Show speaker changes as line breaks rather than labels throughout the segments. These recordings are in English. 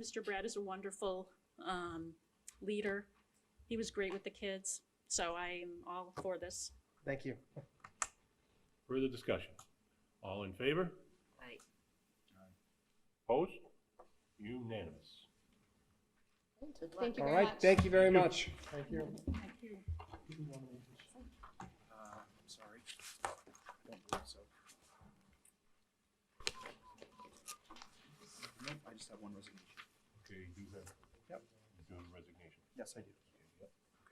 Mr. Brad is a wonderful um, leader. He was great with the kids, so I am all for this.
Thank you.
Further discussion? All in favor?
Aye.
Opposed? Unanimous.
Good luck.
Thank you
All
very
right,
much.
thank you very
Thank you.
much.
Thank you.
Thank you.
Uh, I'm sorry. I don't believe so. Nope, I just have one resignation.
Okay, you do have.
Yep.
You do have resignation.
Yes, I do.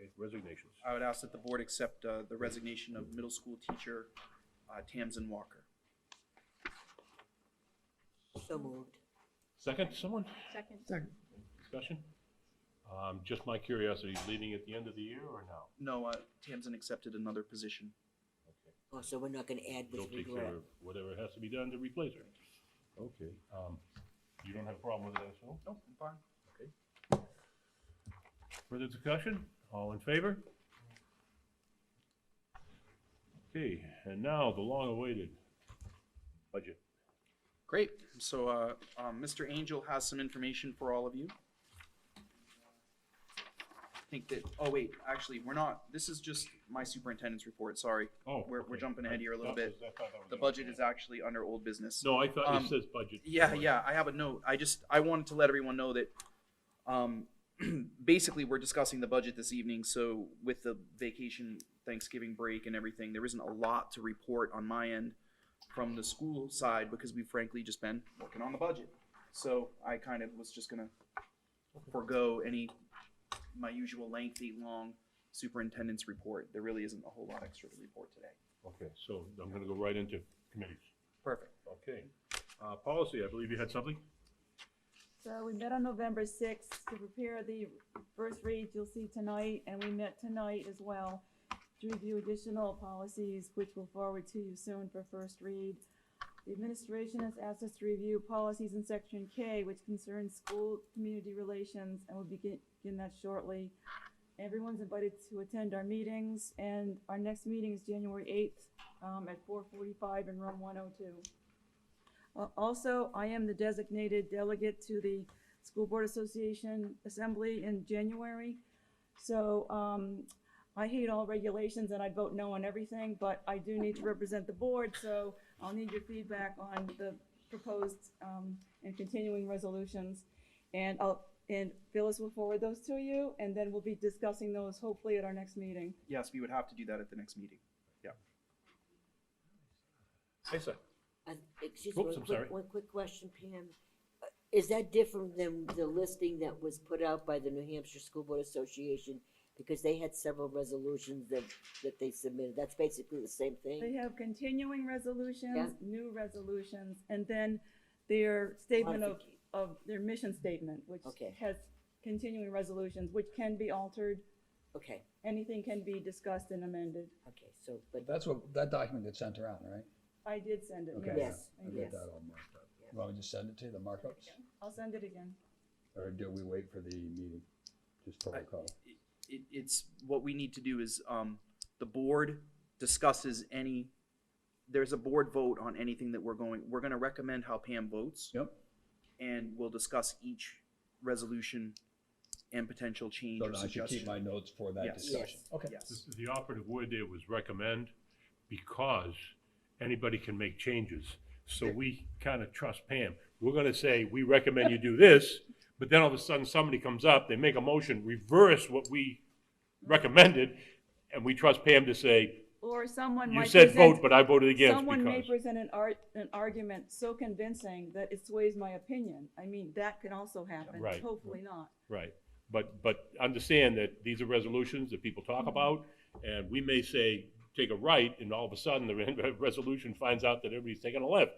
Okay, resignations.
I would ask that the board accept uh, the resignation of middle school teacher uh, Tamsin Walker.
So moved.
Second, someone?
Second.
Discussion? Um, just my curiosity, leaving at the end of the year or now?
No, uh, Tamsin accepted another position.
Okay.
Oh, so we're not gonna add with
Bill takes
regret.
care of whatever has to be done to replace her. Okay, um, you don't have a problem with that, so?
Nope, Oh, I'm fine.
Further discussion? All in favor? Okay, and now the long-awaited budget.
Great. So uh, um, Mr. Angel has some information for all of you. I think that, oh wait, actually, we're not, this is just my superintendent's report, sorry.
Oh.
We're- we're
okay.
jumping ahead here a little
I thought- I thought that was
The
it.
budget is actually under old business.
No, I thought
um,
it says budget.
Yeah, yeah, I have a note. I just, I wanted to let everyone know that, um, basically, we're discussing the budget this evening, so with the vacation, Thanksgiving break and everything, there isn't a lot to report on my end from the school side, because we've frankly just been working on the budget. So I kind of was just gonna forego any, my usual lengthy, long superintendent's report. There really isn't a whole lot extra to report today.
Okay, so I'm gonna go right into committees.
Perfect.
Okay. Uh, policy, I believe you had something?
So we met on November sixth to prepare the first read you'll see tonight, and we met tonight as well to review additional policies, which we'll forward to you soon for first read. The administration has asked us to review policies in section K, which concerns school community relations, and we'll begin, begin that shortly. Everyone's invited to attend our meetings, and our next meeting is January eighth, um, at four forty-five in room one oh two. Uh, Also, I am the designated delegate to the School Board Association Assembly in January. So um, I hate all regulations and I'd vote no on everything, but I do need to represent the board, so I'll need your feedback on the proposed um, and continuing resolutions. And I'll, and Phyllis will forward those to you, and then we'll be discussing those hopefully at our next meeting.
Yes, we would have to do that at the next meting.
Hey, sir.
Uh, Excuse
Oops,
me,
I'm
one
sorry.
quick, one quick question, Pam. Uh, Is that different than the listing that was put out by the New Hampshire School Board Association? Because they had several resolutions that, that they submitted. That's basically the same
They
thing?
have continuing resolutions,
Yeah.
new resolutions, and then their statement of,
Modifica-
of their mission statement, which
Okay.
has continuing resolutions, which can be altered,
Okay,
anything can be discussed and amended.
okay, so, but,
That's what, that document gets sent around, right?
I did send it,
Okay.
yes.
yes,
I
I
did.
got
yes.
that all marked up. You want me to send it to you, the markups?
I'll send it again.
Or do we wait for the meeting? Just protocol?
it, it's, what we need to do is, um, the board discusses any, there's a board vote on anything that we're going, we're gonna recommend how Pam votes,
Yep.
and we'll discuss each resolution and potential change
So
or
now I should keep
suggestion.
my notes for that
Yes.
discussion.
Yes.
Okay.
Yes,
The operative word there was recommend because anybody can make changes. So we kind of trust Pam. We're going to say, we recommend you do this, but then all of a sudden somebody comes up, they make a motion, reverse what we recommended, and we trust Pam to say,
Or someone
you
might
said vote,
present-
but I voted against
Someone may
because.
present an art, an argument so convincing that it sways my opinion. I mean, that can also happen,
Right.
hopefully not.
Right. But, but understand that these are resolutions that people talk about, and we may say, take a right, and all of a sudden, the re- resolution finds out that everybody's taking a left.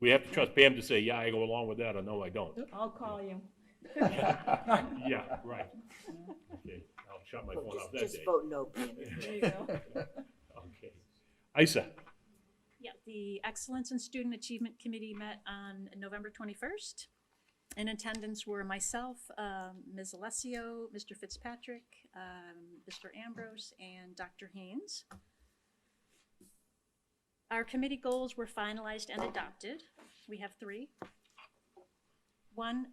We have to trust Pam to say, yeah, I go along with that, or no, I don't.
I'll call you.
Yeah, right. Okay, I'll shut my
Well,
phone
just-
off that
just
day.
vote no, Pam.
There you go.
Okay. Isa,
Yeah, the Excellence in Student Achievement Committee met on November 21st. In attendance were myself, um, Ms. Alessio, Mr. Fitzpatrick, um, Mr. Ambrose, and Dr. Haynes. Our committee goals were finalized and adopted. We have three. One,